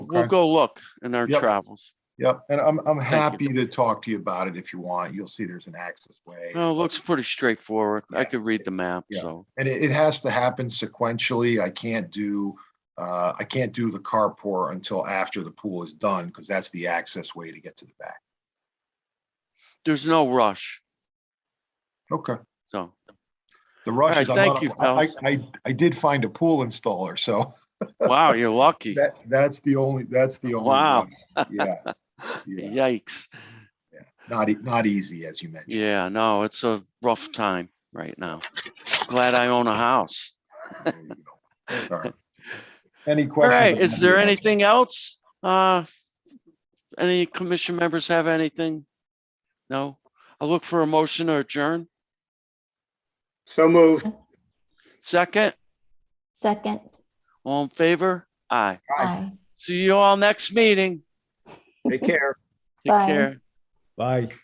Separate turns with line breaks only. we'll
Okay.
go look in our
Yep.
travels.
Yep, and I'm, I'm
Thank
happy to talk to you about it if you want. You'll see there's an access way.
No, it looks pretty straightforward. I
Yeah.
could read the map,
Yeah.
so.
And it, it has to happen sequentially. I can't do, uh, I can't do the carport until after the pool is done because that's the access way to get to the back.
There's no rush,
Okay,
so.
the rush
All
is,
right,
I'm not
thank you,
a- I, I, I did find a pool installer, so
Wow, you're lucky.
that, that's the only, that's the only.
Wow.
one. Yeah, yeah.
Yikes.
not, e- not easy, as you mentioned.
Yeah, no, it's a rough time right now. Glad I own a house.
There you go. All right. Any
All
questions?
right, is there
Yeah.
anything else? Uh, any commission members have anything? No? I'll look for a motion or adjourn.
So moved.
Second,
Second,
all in favor? Aye.
Aye.
aye.
See you all next meeting.
Take care.
Take
Bye.
care.
Bye.